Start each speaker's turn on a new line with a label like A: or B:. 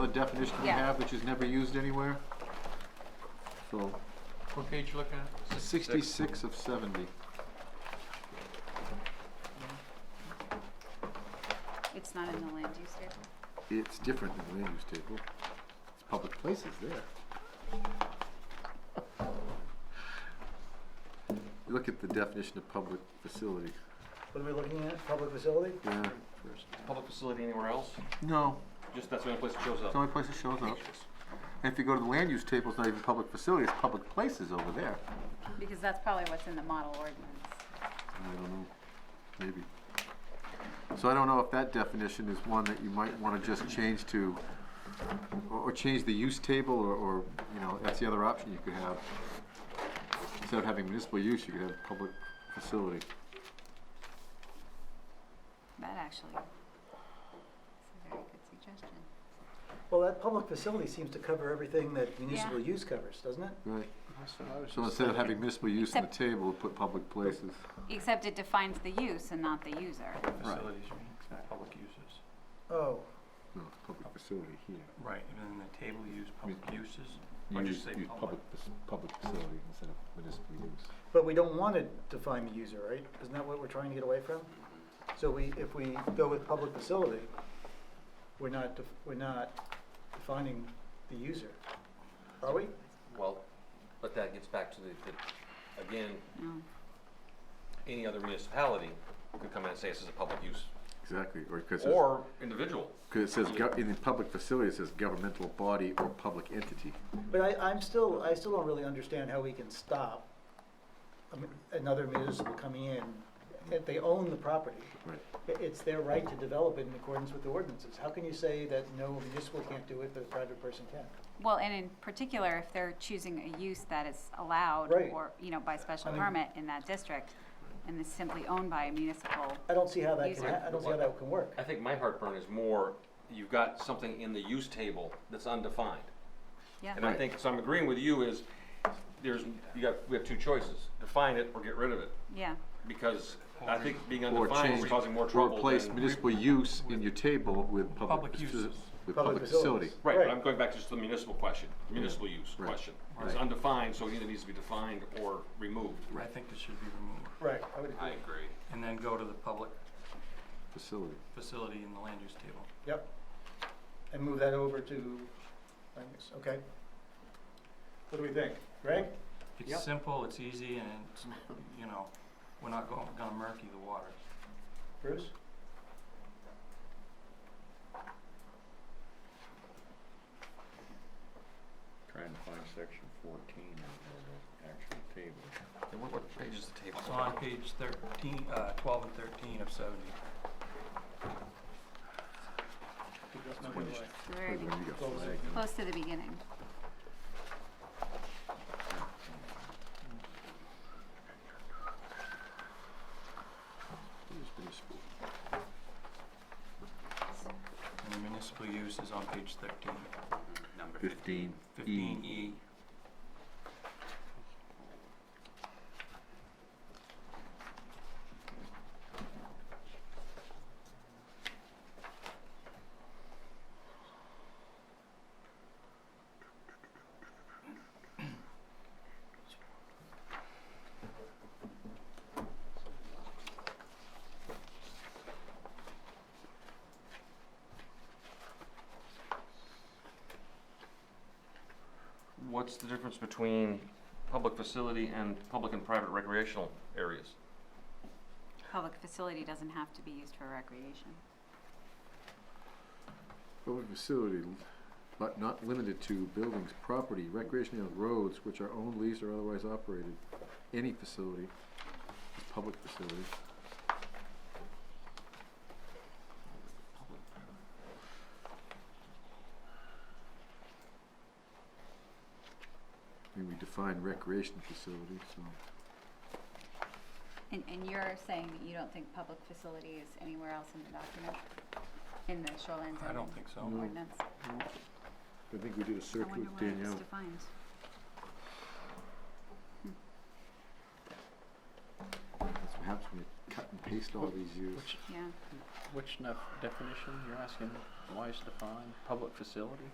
A: The definition we
B: Yeah.
A: have, which is never used anywhere. So,
C: What page you looking at?
A: sixty-six of seventy.
B: It's not in the land use table.
A: It's different than the land use table. It's public places there. You Look at the definition of public facility.
D: What are we looking at, public facility?
A: Yeah.
C: Public facility anywhere else?
A: No,
C: Just that's the only place it shows
A: it's
C: up.
A: the only place it shows up. And if you go to the land use table, it's not even public facility, it's public places over there.
B: Because that's probably what's in the model ordinance.
A: I don't know, maybe. So I don't know if that definition is one that you might wanna just change to, or, or change the use table, or, or, you know, that's the other option you could have. Instead of having municipal use, you could have public facility.
B: That actually is a very good suggestion.
D: Well, that public facility seems to cover everything that municipal
B: Yeah.
D: use covers, doesn't it?
A: Right. So instead of having municipal use in the table, put public places.
B: Except it defines the use and not the user.
C: Facilities, right, public uses.
D: Oh,
A: No, it's public facility here.
C: Right, and then the table use public uses,
A: You
C: or
A: use,
C: just say
A: use
C: public.
A: public, fac- public facility instead of municipal use.
D: but we don't want to define the user, right? Isn't that what we're trying to get away from? So we, if we go with public facility, we're not, def- we're not defining the user, are we?
E: Well, but that gets back to the, the, again,
B: No.
E: any other municipality could come in and say this is a public use,
A: Exactly, or, cause it's-
E: or individual.
A: Because it says, gov- in the public facility, it says governmental body or public entity.
D: But I, I'm still, I still don't really understand how we can stop a mu- another municipal coming in. If they own the property,
A: Right.
D: i- it's their right to develop it in accordance with the ordinances. How can you say that no municipal can't do it, but a private person can?
B: Well, and in particular, if they're choosing a use that is allowed
D: Right.
B: or, you know, by special
D: I mean-
B: permit in that district and is simply owned by a municipal,
D: I don't see how that can,
B: User.
D: ha- I don't see how that can work.
E: I think my heartburn is more, you've got something in the use table that's undefined.
B: yeah.
E: And I think, so I'm agreeing with you is, there's, you got, we have two choices, define it or get rid of it.
B: Yeah,
E: Because I think being
A: Or
E: undefined
A: change-
E: is causing more
A: Or
E: trouble
A: replace
E: than-
A: municipal use in your table with public.
C: Public
A: faci-
C: uses.
A: With
D: Public
A: public facility.
D: facilities.
E: Right, but
D: Right.
E: I'm going back to just the municipal question, municipal use
A: Right.
E: question. It's undefined, so it either needs to be defined or removed.
C: I think it should be removed,
D: Right, I would
E: I
D: agree.
E: agree.
C: and then go to the public
A: Facility.
C: facility in the land use table.
D: Yep. And move that over to, I guess, okay. What do we think? Greg? Yep.
C: It's simple, it's easy, and it's, you know, we're not going, gonna murky the water.
D: Bruce?
F: Trying to find section fourteen of the actual table.
E: And what, what page is the table?
C: It's on page thirteen, uh, twelve and thirteen of seventy.
B: it's the very
A: Wait, when you got
D: Close it.
A: flag.
B: close to the beginning.
A: Where's municipal?
C: And the municipal use is on page thirteen.
E: Number
F: Fifteen
C: Fifteen E,
E: What's the difference between public facility and public and private recreational areas?
B: Public facility doesn't have to be used for recreation.
A: Public facility, but not limited to buildings, property, recreational roads, which are owned, leased, or otherwise operated. Any facility is public facility. I mean, we define recreation facility, so.
B: And, and you're saying that you don't think public facility is anywhere else in the document? In the shoreline
C: I don't
B: zoning
C: think so.
A: No.
B: ordinance?
A: I think we did a
B: I
A: search
B: wonder
A: with
B: where it's
A: Danielle.
B: defined.
A: That's what happens when you cut and paste all these years.
B: Yeah,
G: Which nef- definition, you're asking, why is defined, public facility?